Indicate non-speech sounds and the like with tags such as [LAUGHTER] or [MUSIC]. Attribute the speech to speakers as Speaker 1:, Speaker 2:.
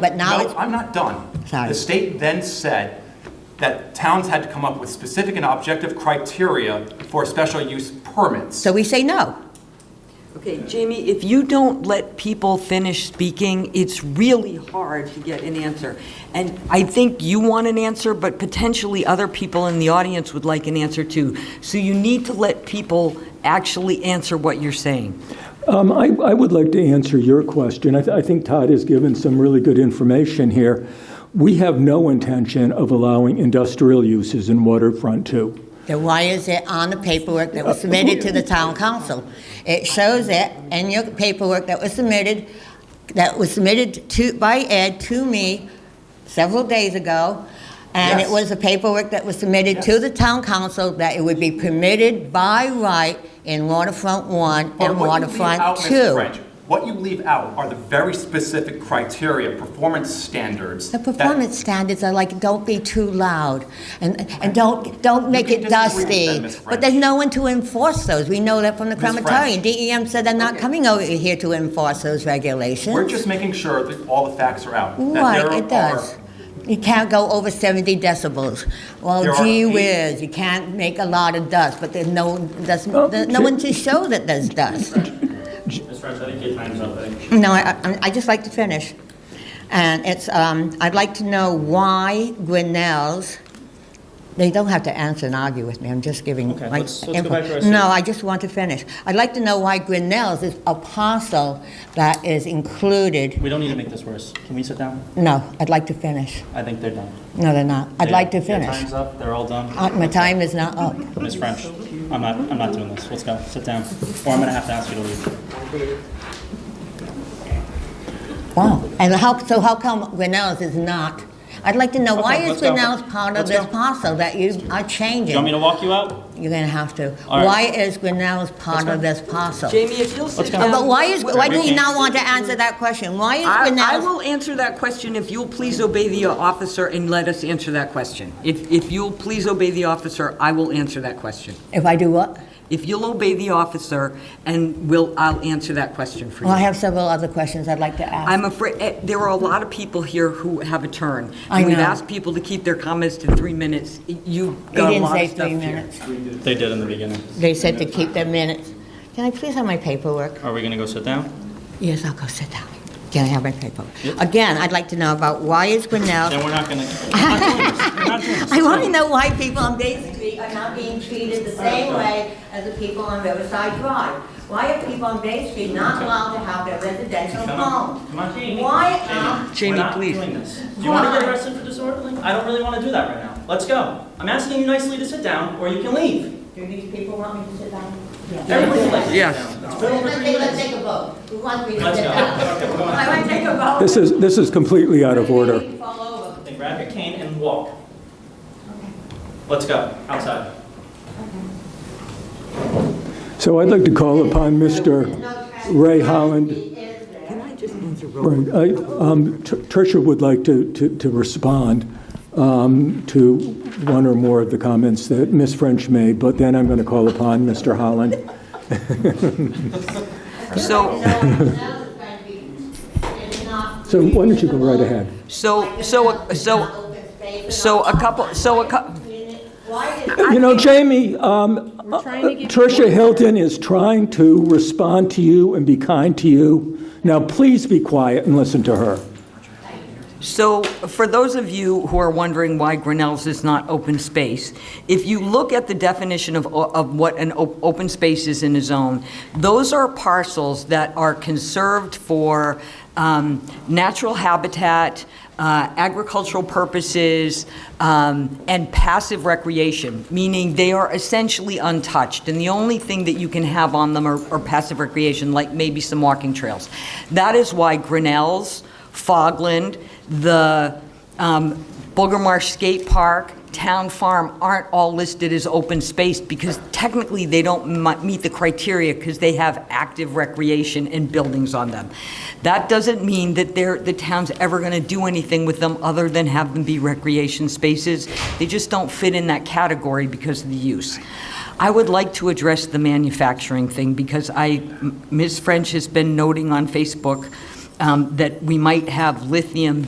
Speaker 1: but now
Speaker 2: No,
Speaker 1: it's-
Speaker 2: I'm not done.
Speaker 1: Sorry.
Speaker 2: The state then said that towns had to come up with specific and objective criteria for special use permits.
Speaker 1: So we say no.
Speaker 3: Okay, Jamie, if you don't let people finish speaking, it's really hard to get an answer. And I think you want an answer, but potentially other people in the audience would like an answer too. So you need to let people actually answer what you're saying.
Speaker 4: Um, I, I would like to answer your question. I, th- I think Todd has given some really good information here. We have no intention of allowing industrial uses in waterfront two.
Speaker 1: Then why is it on the paperwork that was submitted to the town council? It shows it in your paperwork that was submitted, that was submitted to, by Ed to me several days ago. And it
Speaker 2: Yes.
Speaker 1: was the paperwork that was submitted to the town council that it would be permitted by right in waterfront one
Speaker 2: But
Speaker 1: and
Speaker 2: what you leave out,
Speaker 1: waterfront
Speaker 2: Ms.
Speaker 1: two.
Speaker 2: French, What you leave out are the very specific criteria, performance standards.
Speaker 1: The
Speaker 2: that-
Speaker 1: performance standards are like, don't be too loud, and, and don't, don't make
Speaker 2: can
Speaker 1: it
Speaker 2: disagree with them,
Speaker 1: dusty.
Speaker 2: Ms.
Speaker 1: But there's
Speaker 2: French.
Speaker 1: no one to enforce those, we know that from the
Speaker 2: Ms. French.
Speaker 1: crematorium. DEM said they're not
Speaker 3: Okay.
Speaker 1: coming over here to enforce those regulations.
Speaker 2: We're just making sure that all the facts are out. that there
Speaker 1: Right,
Speaker 2: are-
Speaker 1: it does. You can't go over 70 decibels.
Speaker 2: There
Speaker 1: Well,
Speaker 2: are
Speaker 1: gee
Speaker 2: eight-
Speaker 1: whiz, you can't make a lot of dust, but there's no, there's,
Speaker 4: Oh,
Speaker 1: there's no
Speaker 4: Ju-
Speaker 1: one to show that there's dust.
Speaker 5: Ms. French, I think your time's up. I think
Speaker 1: No, I, I- I just like to finish. And it's, um, I'd like to know why Grinnell's, they don't have to answer and argue with me, I'm just giving
Speaker 5: Okay,
Speaker 1: my
Speaker 5: let's- let's go
Speaker 1: info.
Speaker 5: back to our
Speaker 1: No,
Speaker 5: seat.
Speaker 1: I just want to finish. I'd like to know why Grinnell's is a parcel that is included,
Speaker 5: We don't need to make this worse. Can we sit down?
Speaker 1: no, I'd like to finish.
Speaker 5: I think they're done.
Speaker 1: No, they're not, I'd
Speaker 5: They-
Speaker 1: like to
Speaker 5: Their
Speaker 1: finish.
Speaker 5: time's up, they're all done.
Speaker 1: Uh, My time is not up.
Speaker 5: Ms. French, I'm not, I'm not doing this. Let's go, sit down. Or I'm gonna have to ask you to leave.
Speaker 1: Wow. And how, so how come Grinnell's is not? I'd like to know, why
Speaker 5: Okay,
Speaker 1: is
Speaker 5: let's go.
Speaker 1: Grinnell's part of
Speaker 5: Let's
Speaker 1: this
Speaker 5: go.
Speaker 1: parcel that you are
Speaker 5: Do
Speaker 1: changing?
Speaker 5: you want me to walk you out?
Speaker 1: You're gonna have to.
Speaker 5: All right.
Speaker 1: Why is Grinnell's part of this parcel? Uh,
Speaker 3: Jamie, if you'll sit
Speaker 5: Let's go.
Speaker 3: down.
Speaker 1: But why is, why do you
Speaker 5: Ricky.
Speaker 1: not want to answer that question? Why is
Speaker 3: I I
Speaker 1: Grinnell's?
Speaker 3: will answer that question if you'll please obey the officer and let us answer that question. If if you'll please obey the officer, I will answer that question.
Speaker 1: If I do what?
Speaker 3: If you'll obey the officer, and will, I'll answer that question for you.
Speaker 1: Well, I have several other questions I'd like to ask.
Speaker 3: I'm afraid, eh, there are a lot of people here who have a turn.
Speaker 1: I
Speaker 3: And We've
Speaker 1: know.
Speaker 3: asked people to keep their comments to three minutes. You've
Speaker 1: They
Speaker 3: got a
Speaker 1: didn't
Speaker 3: lot
Speaker 1: say
Speaker 3: of stuff
Speaker 1: three
Speaker 3: here.
Speaker 1: minutes.
Speaker 5: They did in the beginning.
Speaker 1: They said to keep their minutes. Can I please have my paperwork?
Speaker 5: Are we gonna go sit down?
Speaker 1: Yes, I'll go sit down. Can I have my paperwork?
Speaker 5: Yep.
Speaker 1: Again, I'd like to know about why is Grinnell?
Speaker 5: Then we're not gonna, we're not doing this. We're not doing
Speaker 1: [LAUGHS]
Speaker 5: this.
Speaker 1: I want to know why people on Bay Street are not being treated the same way as the people on Riverside Drive. Why are people on Bay Street not allowed to have their residential
Speaker 5: Come on,
Speaker 1: homes?
Speaker 5: come on, Jamie.
Speaker 1: Why are
Speaker 5: Jamie,
Speaker 3: Jamie,
Speaker 5: we're not
Speaker 3: please.
Speaker 5: doing this. Do you wanna get arrested for disorderly? I don't really wanna do that right now. Let's go. I'm asking you nicely to sit down, or you can leave.
Speaker 1: Do these people want me to sit down?
Speaker 5: Everybody likes to sit
Speaker 3: Yes.
Speaker 5: down. It's been over
Speaker 1: Let's
Speaker 5: three
Speaker 1: take, let's
Speaker 5: minutes.
Speaker 1: take a vote. Who wants me to
Speaker 5: Let's
Speaker 1: sit
Speaker 5: go.
Speaker 1: down?
Speaker 5: Okay, we're going.
Speaker 1: I want to take a vote.
Speaker 4: This is, this is completely out of order.
Speaker 1: Fall over.
Speaker 5: Then grab your cane and walk. Let's go, outside.
Speaker 4: So I'd like to call upon Mr. Ray Holland.
Speaker 3: Can I just answer real
Speaker 4: Right. I- um, Tr- Tricia would like to, to, to respond um, to one or more of the comments that Ms. French made, but then I'm going to call upon Mr. Holland.
Speaker 3: So-
Speaker 4: So why don't you go right ahead?
Speaker 3: So, so, so, so a couple, so a couple.
Speaker 4: You know, Jamie, um, Tricia Hilton is trying to respond to you and be kind to you. Now, please be quiet and listen to her.
Speaker 3: So for those of you who are wondering why Grinnell's is not open space, if you look at the definition of, of what an op- open space is in a zone, those are parcels that are conserved for um, natural habitat, uh, agricultural purposes, um, and passive recreation, meaning they are essentially untouched, and the only thing that you can have on them are are passive recreation, like maybe some walking trails. That is why Grinnell's, Fogland, the um, Booger Marsh Skate Park, Town Farm aren't all listed as open space because technically they don't m- meet the criteria because they have active recreation and buildings on them. That doesn't mean that they're, the town's ever going to do anything with them other than have them be recreation spaces. They just don't fit in that category because of the use. I would like to address the manufacturing thing because I, Ms. French has been noting on Facebook um, that we might have lithium